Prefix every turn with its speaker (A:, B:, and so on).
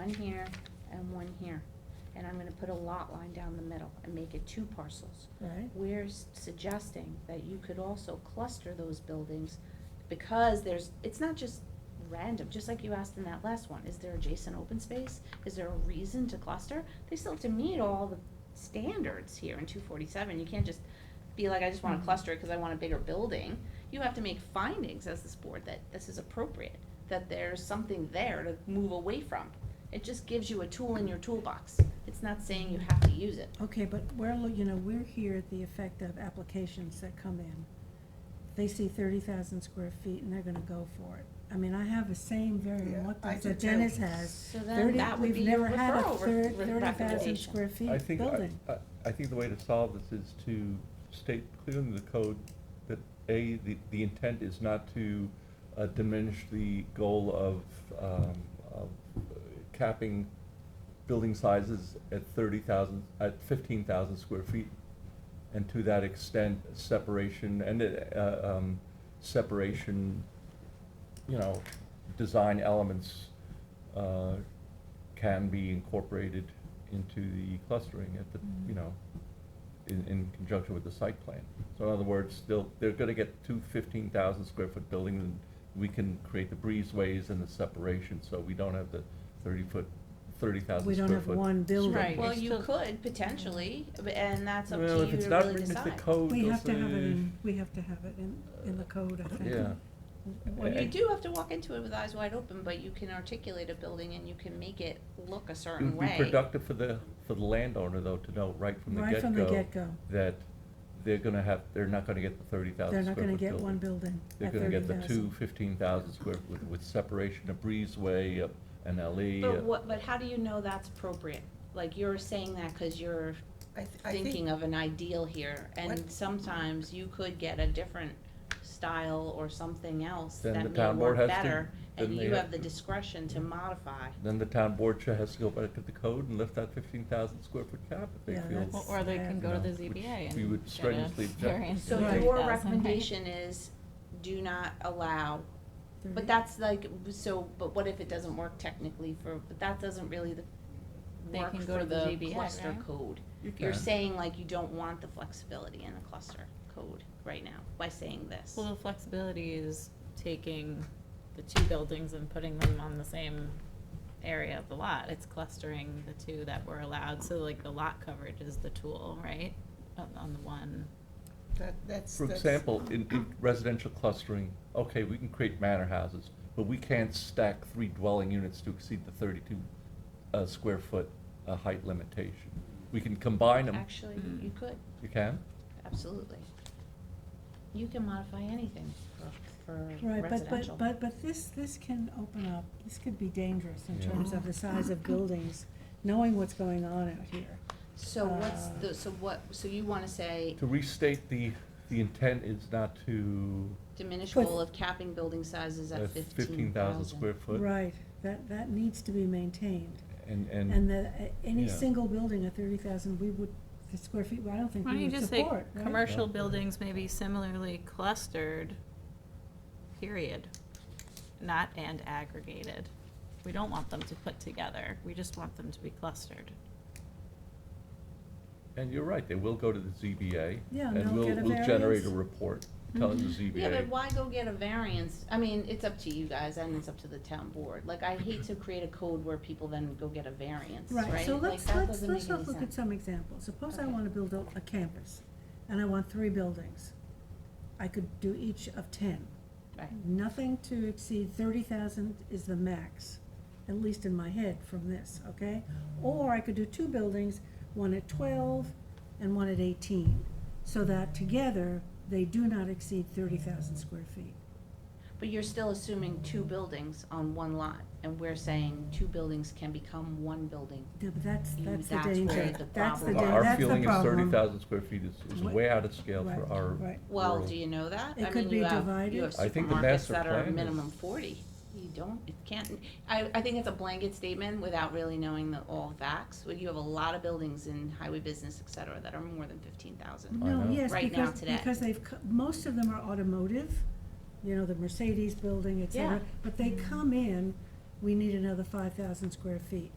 A: one here and one here. And I'm gonna put a lot line down the middle and make it two parcels.
B: Right.
A: We're s- suggesting that you could also cluster those buildings because there's, it's not just random, just like you asked in that last one, is there adjacent open space? Is there a reason to cluster? They still have to meet all the standards here in two forty-seven, you can't just be like, I just wanna
B: Mhm.
A: cluster it because I want a bigger building. You have to make findings as this board that this is appropriate, that there's something there to move away from. It just gives you a tool in your toolbox, it's not saying you have to use it.
B: Okay, but we're, lo- you know, we're here at the effect of applications that come in. They see thirty thousand square feet and they're gonna go for it. I mean, I have the same
C: Yeah,
B: very look
C: I do
B: that
C: too.
B: Dennis has.
A: So then
B: Thirty,
A: that would
B: we've
A: be your
B: never had a
A: referral re-
B: thirty,
A: re-
B: thirty thousand
A: recommendation.
B: square
D: I
B: feet
D: think, uh, I-
B: building.
D: I, I think the way to solve this is to state clearly in the code that, A, the, the intent is not to uh, diminish the goal of, um, of uh, capping building sizes at thirty thousand, at fifteen thousand square feet. And to that extent, separation and, uh, um, separation, you know, design elements, uh, can be incorporated into the clustering at the,
B: Mm-hmm.
D: you know, in, in conjunction with the site plan. So in other words, they'll, they're gonna get two fifteen thousand square foot buildings, and we can create the breezeways and the separation, so we don't have the thirty foot, thirty thousand
B: We
D: square
B: don't
D: foot.
B: have one building.
E: Right.
A: Well,
E: It's
A: you
E: still-
A: could potentially, but- and that's up to
D: Well, if
A: you
D: it's
A: to
D: not
A: really
D: written into the
A: decide.
D: code,
B: We
D: they'll
B: have to have it
D: say,
B: in, we have to have it in, in the code, I think.
D: Yeah.
A: Well, you
D: And-
A: do have to walk into it with eyes wide open, but you can articulate a building and you can make it look a
D: It
A: certain
D: would be
A: way.
D: productive for the, for the landowner, though, to know right from the
B: Right from the get-go.
D: that they're gonna have, they're not gonna get the thirty
B: They're
D: thousand square
B: not
D: foot building.
B: gonna get one building
D: They're
B: at
D: gonna get the
B: 30,000.
D: two fifteen thousand square with, with separation, a breezeway, a- an E, alley. a-
A: But what, but how do you know that's appropriate? Like, you're saying that because you're
C: I, th- I
A: thinking
C: think,
A: of an ideal here, and
C: What-
A: sometimes you could get a different style or something else
D: Then the
A: that may
D: town board
A: work
D: has to-
A: better, and
D: then they
A: you
D: have
A: have the
D: to-
A: discretion to modify.
D: Then the town board should has to go back to the code and lift that fifteen thousand square foot cap if they
B: Yeah,
D: feel.
B: that's-
E: Well, Or they can go to the
D: Yeah, which
E: ZBA
D: we
E: and
D: would
E: get a
D: strenuously object
E: variance.
D: to.
A: So
D: Yeah.
B: Right.
A: your
E: 30,000, right?
A: recommendation is, do not allow But
E: Mm-hmm.
B: Thirty-
A: that's like, so, but what if it doesn't work technically for, but that doesn't really the,
E: They
A: work
E: can go
A: for
E: to the
A: the
E: ZBA,
A: cluster
E: right?
A: code.
D: You
A: You're
D: can.
A: saying like you don't want the flexibility in the cluster code right now by saying this.
E: Well, the flexibility is taking the two buildings and putting them on the same area of the lot. It's clustering the two that were allowed, so like the lot coverage is the tool, right? On, on the one.
C: that, that's,
D: For
C: that's,
D: example, in, in residential clustering, okay, we can create manor houses, but we can't stack three dwelling units to exceed the thirty-two, uh, square foot, uh, height limitation. We can combine them,
A: Actually,
E: Mm.
A: you could,
D: you can?
A: absolutely. You can modify anything for, for
B: Right, but,
A: residential.
B: but, but, but this, this can open up, this could be dangerous in
D: Yeah.
B: terms of the size of buildings, knowing what's going on out here.
A: So what's
B: uh,
A: the, so what, so you wanna say
D: To restate the, the intent is not to
A: diminish
B: But-
A: goal of capping building sizes
D: uh,
A: at
D: fifteen thousand square foot.
B: Right, that, that needs to be maintained.
D: And, and.
B: And the, a- any
D: Yeah.
B: single building at thirty thousand, we would, the square feet, I don't think
E: Why don't
B: we
E: you
B: would
E: just say,
B: support, right?
E: commercial buildings may be similarly clustered, period, not and aggregated. We don't want them to put together, we just want them to be clustered.
D: And you're right, they will go to the ZBA.
B: Yeah, and they'll get a
D: we'll, we'll generate
B: variance. Mm-hmm.
D: a report telling the ZBA.
A: Yeah, but why go get a variance? I mean, it's up to you guys and it's up to the town board. Like, I hate to create a code where people then go get a variance, right?
B: Right, so
A: Like,
B: let's,
A: that
B: let's,
A: doesn't
B: let's
A: make
B: look
A: any
B: at
A: sense.
B: some examples. Suppose I
A: Okay.
B: wanna build a, a campus, and I want three buildings. I could do each of ten.
A: Right.
B: Nothing to exceed thirty thousand is the max, at least in my head from this, okay? Or I could do two buildings, one at twelve and one at eighteen, so that together, they do not exceed thirty thousand square feet.
A: But you're still assuming two buildings on one lot, and we're saying two buildings can become one building.
B: Yeah, but that's,
A: Mm,
B: that's the
A: that's where
B: danger,
A: the
B: that's
A: problem-
B: the danger, that's the problem.
A: Our
D: Our feeling is thirty thousand square feet is, is
B: Wh-
D: way out of scale
B: Right,
D: for our
B: right.
A: Well,
D: world.
A: do you know that?
B: It
A: I
B: could
A: mean,
B: be
A: you have- You
B: divided.
A: have
D: I think the
A: supermarkets
D: master
A: that are
D: plan is-
A: minimum forty. You don't, it can't, I, I think it's a blanket statement without really knowing the, all facts. Well, You have a lot of buildings in highway business, et cetera, that are more than fifteen thousand.
D: I
B: No,
D: know.
B: yes,
A: Right now
B: because,
A: today.
B: because they've, co- most of them are automotive, you know, the Mercedes building, et cetera.
A: Yeah.
B: But they come in, we need another five thousand square feet.